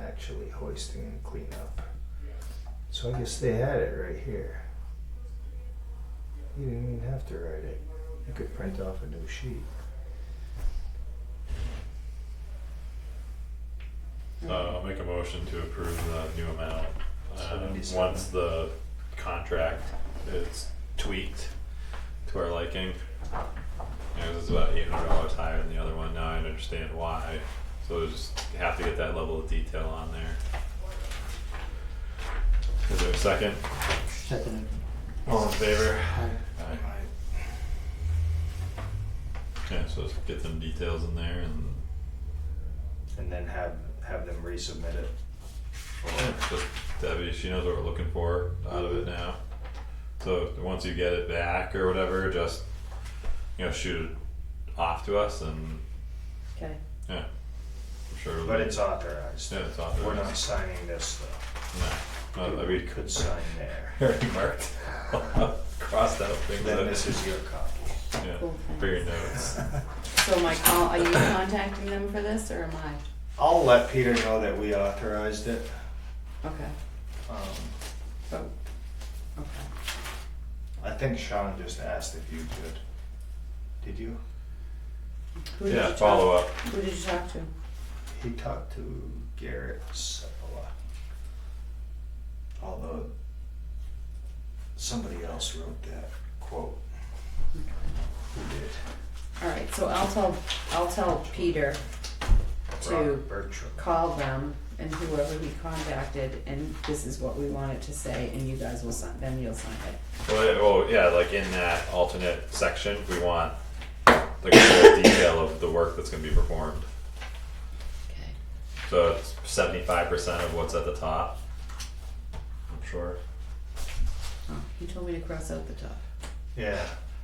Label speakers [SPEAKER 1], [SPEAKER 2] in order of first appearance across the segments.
[SPEAKER 1] actually hoisting and cleanup. So I guess they had it right here. You didn't even have to write it. You could print off a new sheet.
[SPEAKER 2] Uh, I'll make a motion to approve the new amount. Uh,
[SPEAKER 1] 77.
[SPEAKER 2] once the contract is tweaked to our liking. It was about eight hundred dollars higher than the other one, now I understand why, so we just have to get that level of detail on there. Is there a second?
[SPEAKER 3] Second.
[SPEAKER 2] All in favor?
[SPEAKER 3] Aye.
[SPEAKER 2] Aye. Yeah, so let's get some details in there and
[SPEAKER 1] And then have have them resubmit it.
[SPEAKER 2] Yeah, just Debbie, she knows what we're looking for out of it
[SPEAKER 1] Mm-hmm.
[SPEAKER 2] now. So once you get it back or whatever, just you know, shoot it off to us and
[SPEAKER 4] Okay,
[SPEAKER 2] yeah. I'm sure it'll
[SPEAKER 1] But
[SPEAKER 2] be-
[SPEAKER 1] it's authorized.
[SPEAKER 2] yeah, it's
[SPEAKER 1] We're
[SPEAKER 2] authorized. Uh,
[SPEAKER 1] not signing this though.
[SPEAKER 2] No, no, we
[SPEAKER 1] We
[SPEAKER 2] could
[SPEAKER 1] could sign there.
[SPEAKER 2] already marked. Crossed out things
[SPEAKER 1] Then
[SPEAKER 2] that
[SPEAKER 1] this is your copy.
[SPEAKER 2] yeah,
[SPEAKER 4] Cool,
[SPEAKER 2] for your notes.
[SPEAKER 4] so my call, are you contacting them for this or am I?
[SPEAKER 1] I'll let Peter know that we authorized it.
[SPEAKER 4] Okay,
[SPEAKER 1] Um,
[SPEAKER 4] so, okay.
[SPEAKER 1] I think Sean just asked if you could. Did you?
[SPEAKER 4] Who did
[SPEAKER 2] Yeah,
[SPEAKER 4] you talk-
[SPEAKER 2] follow up.
[SPEAKER 4] Who did you talk to?
[SPEAKER 1] He talked to Garrett Sepola. Although somebody else wrote that quote. Who did?
[SPEAKER 4] Alright, so I'll tell, I'll tell Peter to
[SPEAKER 1] Rob Bertram.
[SPEAKER 4] call them and whoever he contacted and this is what we wanted to say and you guys will sign, then you'll sign it.
[SPEAKER 2] Well, yeah, well, yeah, like in that alternate section, we want the full detail of the work that's gonna be performed.
[SPEAKER 4] Okay.
[SPEAKER 2] So it's seventy-five percent of what's at the top. I'm sure.
[SPEAKER 4] Oh, he told me to cross out the top.
[SPEAKER 1] Yeah.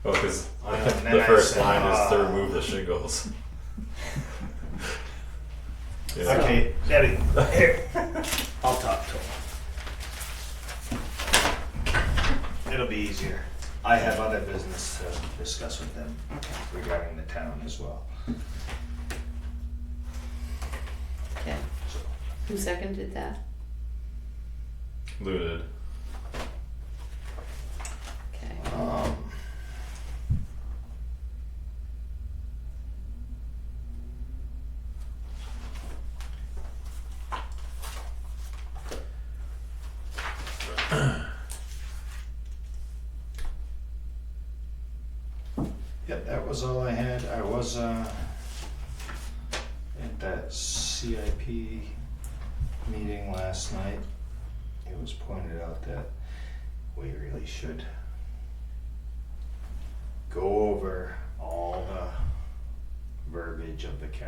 [SPEAKER 2] Oh, because
[SPEAKER 1] I know, and then
[SPEAKER 2] the
[SPEAKER 1] I
[SPEAKER 2] first
[SPEAKER 1] said,
[SPEAKER 2] line is to
[SPEAKER 1] "Ah."
[SPEAKER 2] remove the shingles. yeah.
[SPEAKER 1] Okay, Debbie, here. I'll talk to him. It'll be easier. I have other business to discuss with them regarding the town as well.
[SPEAKER 4] Okay,
[SPEAKER 1] So,
[SPEAKER 4] who seconded that?
[SPEAKER 2] Looted.
[SPEAKER 4] Okay,
[SPEAKER 1] um, Yep, that was all I had. I was uh, at that CIP meeting last night. It was pointed out that we really should go over all the verbiage of the county